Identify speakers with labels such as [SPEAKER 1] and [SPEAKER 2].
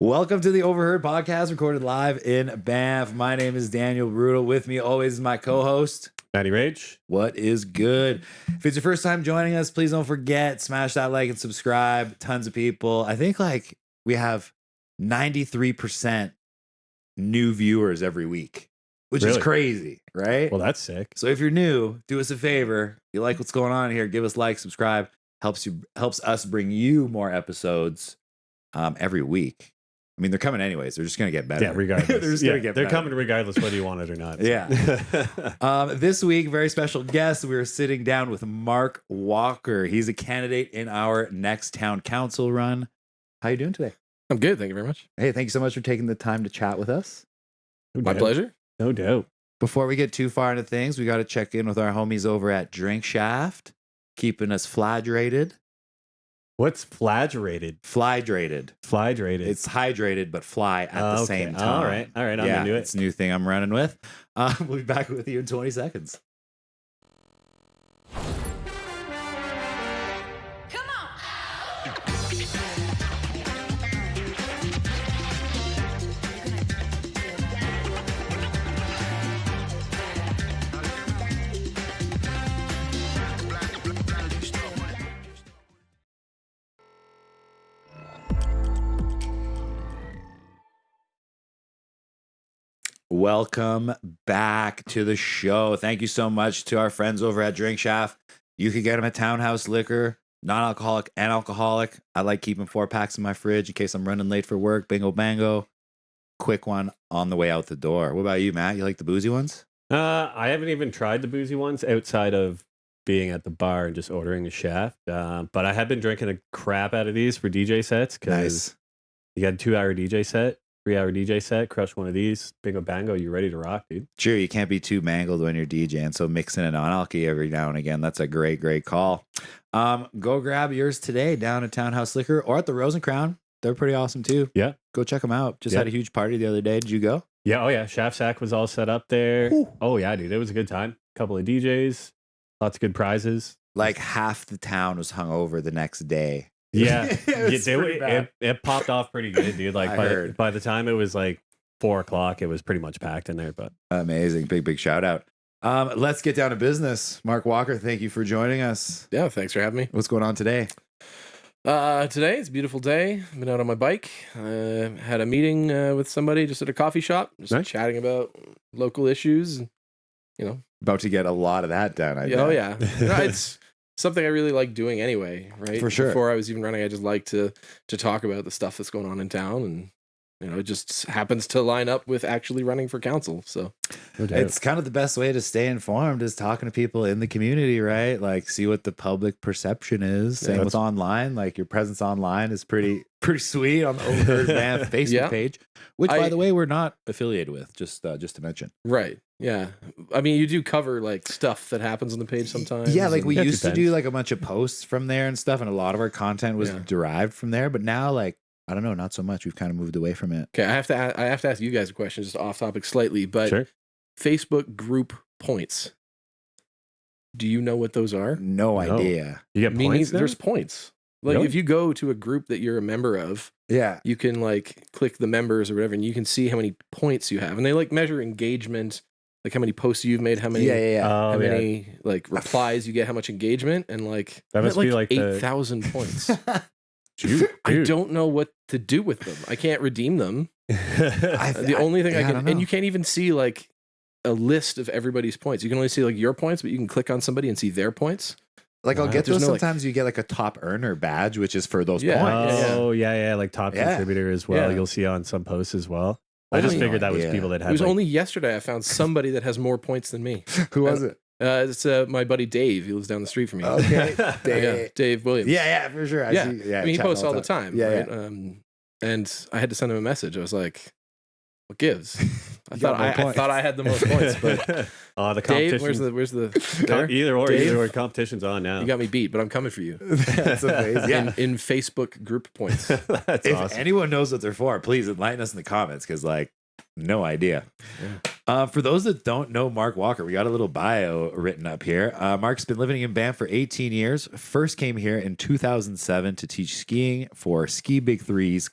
[SPEAKER 1] Welcome to the Overheard Podcast, recorded live in Banff. My name is Daniel Brutal. With me always is my co-host.
[SPEAKER 2] Matty Rage.
[SPEAKER 1] What is good? If it's your first time joining us, please don't forget smash that like and subscribe. Tons of people. I think like we have ninety three percent new viewers every week, which is
[SPEAKER 2] Really?
[SPEAKER 1] crazy, right?
[SPEAKER 2] Well, that's sick.
[SPEAKER 1] So if you're new, do us a favor. If you like what's going on here, give us like, subscribe. Helps you helps us bring you more episodes um, every week. I mean, they're coming anyways. They're just gonna get better.
[SPEAKER 2] Yeah, regardless.
[SPEAKER 1] they're just
[SPEAKER 2] yeah,
[SPEAKER 1] gonna get
[SPEAKER 2] they're
[SPEAKER 1] better.
[SPEAKER 2] coming regardless whether you want it or not.
[SPEAKER 1] Yeah. Um, this week, very special guest. We are sitting down with Mark Walker. He's a candidate in our next town council run. How you doing today?
[SPEAKER 3] I'm good. Thank you very much.
[SPEAKER 1] Hey, thank you so much for taking the time to chat with us.
[SPEAKER 2] No
[SPEAKER 3] My
[SPEAKER 2] doubt.
[SPEAKER 3] pleasure.
[SPEAKER 2] No doubt.
[SPEAKER 1] Before we get too far into things, we got to check in with our homies over at Drink Shaft, keeping us flagrated.
[SPEAKER 2] What's flagrated?
[SPEAKER 1] Flagrated.
[SPEAKER 2] Flagrated.
[SPEAKER 1] It's Ah, hydrated, but fly at the
[SPEAKER 2] Okay.
[SPEAKER 1] same time.
[SPEAKER 2] All right. All right. I'm
[SPEAKER 1] yeah,
[SPEAKER 2] into it.
[SPEAKER 1] It's a new thing I'm running with. Uh, we'll be back with you in 20 seconds.
[SPEAKER 4] Come on.
[SPEAKER 1] Welcome back to the show. Thank you so much to our friends over at Drink Shaft. You can get them at Townhouse Liquor, non alcoholic and alcoholic. I like keeping four packs in my fridge in case I'm running late for work. Bingo, bango. Quick one on the way out the door. What about you, Matt? You like the boozy ones?
[SPEAKER 2] Uh, I haven't even tried the boozy ones outside of being at the bar and just ordering a shaft. Uh, but I have been drinking a crap out of these for DJ sets because you got a two hour DJ set, three hour DJ set, crush one of these, bingo bango, you're ready to rock, dude.
[SPEAKER 1] Sure, you can't be too mangled when you're DJing, so mixing it on alky every now and again. That's a great, great call. Um, go grab yours today down at Townhouse Liquor or at the Rose and Crown. They're pretty awesome too.
[SPEAKER 2] Yeah.
[SPEAKER 1] Go check them out. Just
[SPEAKER 2] Yeah.
[SPEAKER 1] had a huge party the other day. Did you go?
[SPEAKER 2] Yeah, oh yeah. Shaft Sack was all set up there. Oh yeah, dude. It was a good time. Couple of DJs, lots of good prizes.
[SPEAKER 1] Like half the town was hungover the next day.
[SPEAKER 2] Yeah.
[SPEAKER 1] It was
[SPEAKER 2] Yeah, they-
[SPEAKER 1] pretty
[SPEAKER 2] it,
[SPEAKER 1] bad.
[SPEAKER 2] it popped off pretty good, dude.
[SPEAKER 1] I
[SPEAKER 2] Like by, the-
[SPEAKER 1] heard.
[SPEAKER 2] by the time it was like four o'clock, it was pretty much packed in there. But
[SPEAKER 1] Amazing. Big, big shout out. Um, let's get down to business. Mark Walker, thank you for joining us.
[SPEAKER 3] Yeah, thanks for having me.
[SPEAKER 1] What's going on today?
[SPEAKER 3] Uh, today it's a beautiful day. I've been out on my bike. Uh, had a meeting uh, with somebody just at a coffee shop, just
[SPEAKER 2] Nice.
[SPEAKER 3] chatting about local issues. and, You know,
[SPEAKER 1] About to get a lot of that done. I
[SPEAKER 3] yeah, oh
[SPEAKER 1] bet.
[SPEAKER 3] yeah, No, it's something I really like doing anyway. Right,
[SPEAKER 1] For sure.
[SPEAKER 3] Before I was even running, I just like to to talk about the stuff that's going on in town, and you know, it just happens to line up with actually running for council. So
[SPEAKER 2] no doubt.
[SPEAKER 1] It's kind of the best way to stay informed is talking to people in the community, right? Like see what the public perception is.
[SPEAKER 2] Yeah,
[SPEAKER 1] Same
[SPEAKER 2] that's-
[SPEAKER 1] with online. Like your presence online is pretty pretty sweet on the Overheard Man Facebook
[SPEAKER 3] Yeah.
[SPEAKER 1] page, which by
[SPEAKER 3] I-
[SPEAKER 1] the way we're not affiliated with. Just uh, just to mention.
[SPEAKER 3] right, yeah. I mean, you do cover like stuff that happens on the page sometimes.
[SPEAKER 1] Yeah, like
[SPEAKER 3] and-
[SPEAKER 1] we
[SPEAKER 2] Yeah, it
[SPEAKER 1] used to do
[SPEAKER 2] depends.
[SPEAKER 1] like a bunch of posts from there and stuff, and a lot of our content was
[SPEAKER 3] Yeah.
[SPEAKER 1] derived from there. But now, like I don't know, not so much. We've kind of moved away from it.
[SPEAKER 3] Okay, I have to a- I have to ask you guys a question, just off topic slightly, but
[SPEAKER 2] sure.
[SPEAKER 3] Facebook group points. Do you know what those are?
[SPEAKER 1] No,
[SPEAKER 2] No.
[SPEAKER 1] idea.
[SPEAKER 2] You get
[SPEAKER 3] Me
[SPEAKER 2] points
[SPEAKER 3] neither-
[SPEAKER 2] now?
[SPEAKER 3] There's points. Like
[SPEAKER 2] Really?
[SPEAKER 3] if you go to a group that you're a member of,
[SPEAKER 1] Yeah.
[SPEAKER 3] you can like click the members or whatever, and you can see how many points you have, and they like measure engagement, like how many posts you've made, how many.
[SPEAKER 1] yeah, yeah, yeah.
[SPEAKER 2] Oh,
[SPEAKER 3] How
[SPEAKER 2] yeah.
[SPEAKER 3] many like replies you get? How much engagement and like
[SPEAKER 2] That
[SPEAKER 3] I'm at,
[SPEAKER 2] must be, like, the-
[SPEAKER 3] eight thousand points.
[SPEAKER 2] Dude,
[SPEAKER 3] I don't know what to do with them. I can't redeem them.
[SPEAKER 2] I,
[SPEAKER 1] I've-
[SPEAKER 3] the only thing
[SPEAKER 1] yeah,
[SPEAKER 3] I
[SPEAKER 1] don't
[SPEAKER 3] can,
[SPEAKER 1] know.
[SPEAKER 3] and you can't even see like a list of everybody's points. You can only see like your points, but you can click on somebody and see their points.
[SPEAKER 1] Like I'll
[SPEAKER 2] Wow.
[SPEAKER 1] get
[SPEAKER 3] There's
[SPEAKER 1] those.
[SPEAKER 3] no, like-
[SPEAKER 1] Sometimes you get like a top earner badge, which is for those
[SPEAKER 3] Yeah.
[SPEAKER 1] points.
[SPEAKER 3] yeah.
[SPEAKER 2] oh yeah, yeah, like top
[SPEAKER 1] Yeah.
[SPEAKER 2] contributor as well.
[SPEAKER 3] Yeah.
[SPEAKER 2] You'll see on some posts as well. I
[SPEAKER 3] Only-
[SPEAKER 2] just figured that was
[SPEAKER 1] Yeah.
[SPEAKER 2] people that
[SPEAKER 3] It
[SPEAKER 2] had
[SPEAKER 3] was
[SPEAKER 2] like,
[SPEAKER 3] only yesterday I found somebody that has more points than me.
[SPEAKER 1] Who was it?
[SPEAKER 3] Uh, it's uh, my buddy Dave. He lives down the street from me. Uh,
[SPEAKER 1] Okay.
[SPEAKER 3] Yeah,
[SPEAKER 1] Oh, Dave.
[SPEAKER 3] Dave Williams.
[SPEAKER 1] Yeah, yeah, for sure. I
[SPEAKER 3] Yeah.
[SPEAKER 1] see. Yeah,
[SPEAKER 3] I mean, he
[SPEAKER 1] chatting
[SPEAKER 3] posts all the time.
[SPEAKER 1] Yeah,
[SPEAKER 3] right? Um, and I had to send him a message. I was like, "What gives?" I
[SPEAKER 1] You got
[SPEAKER 3] thought I,
[SPEAKER 1] more
[SPEAKER 3] I
[SPEAKER 1] points.
[SPEAKER 3] thought I had the most points, but
[SPEAKER 2] oh, the competition.
[SPEAKER 3] Dave, where's the where's the
[SPEAKER 2] com-
[SPEAKER 3] there?
[SPEAKER 2] either or,
[SPEAKER 3] Dave?
[SPEAKER 2] either or, competition's on now.
[SPEAKER 3] You got me beat, but I'm coming for you
[SPEAKER 1] That's amazing.
[SPEAKER 2] Yeah.
[SPEAKER 3] in, in Facebook group points.
[SPEAKER 2] That's
[SPEAKER 1] if
[SPEAKER 2] awesome.
[SPEAKER 1] anyone knows what they're for, please enlighten us in the comments because, like, no idea. Uh, for those that don't know Mark Walker, we got a little bio written up here. Uh, Mark's been living in Banff for 18 years. First came here in 2007 to teach skiing for Ski Big Threes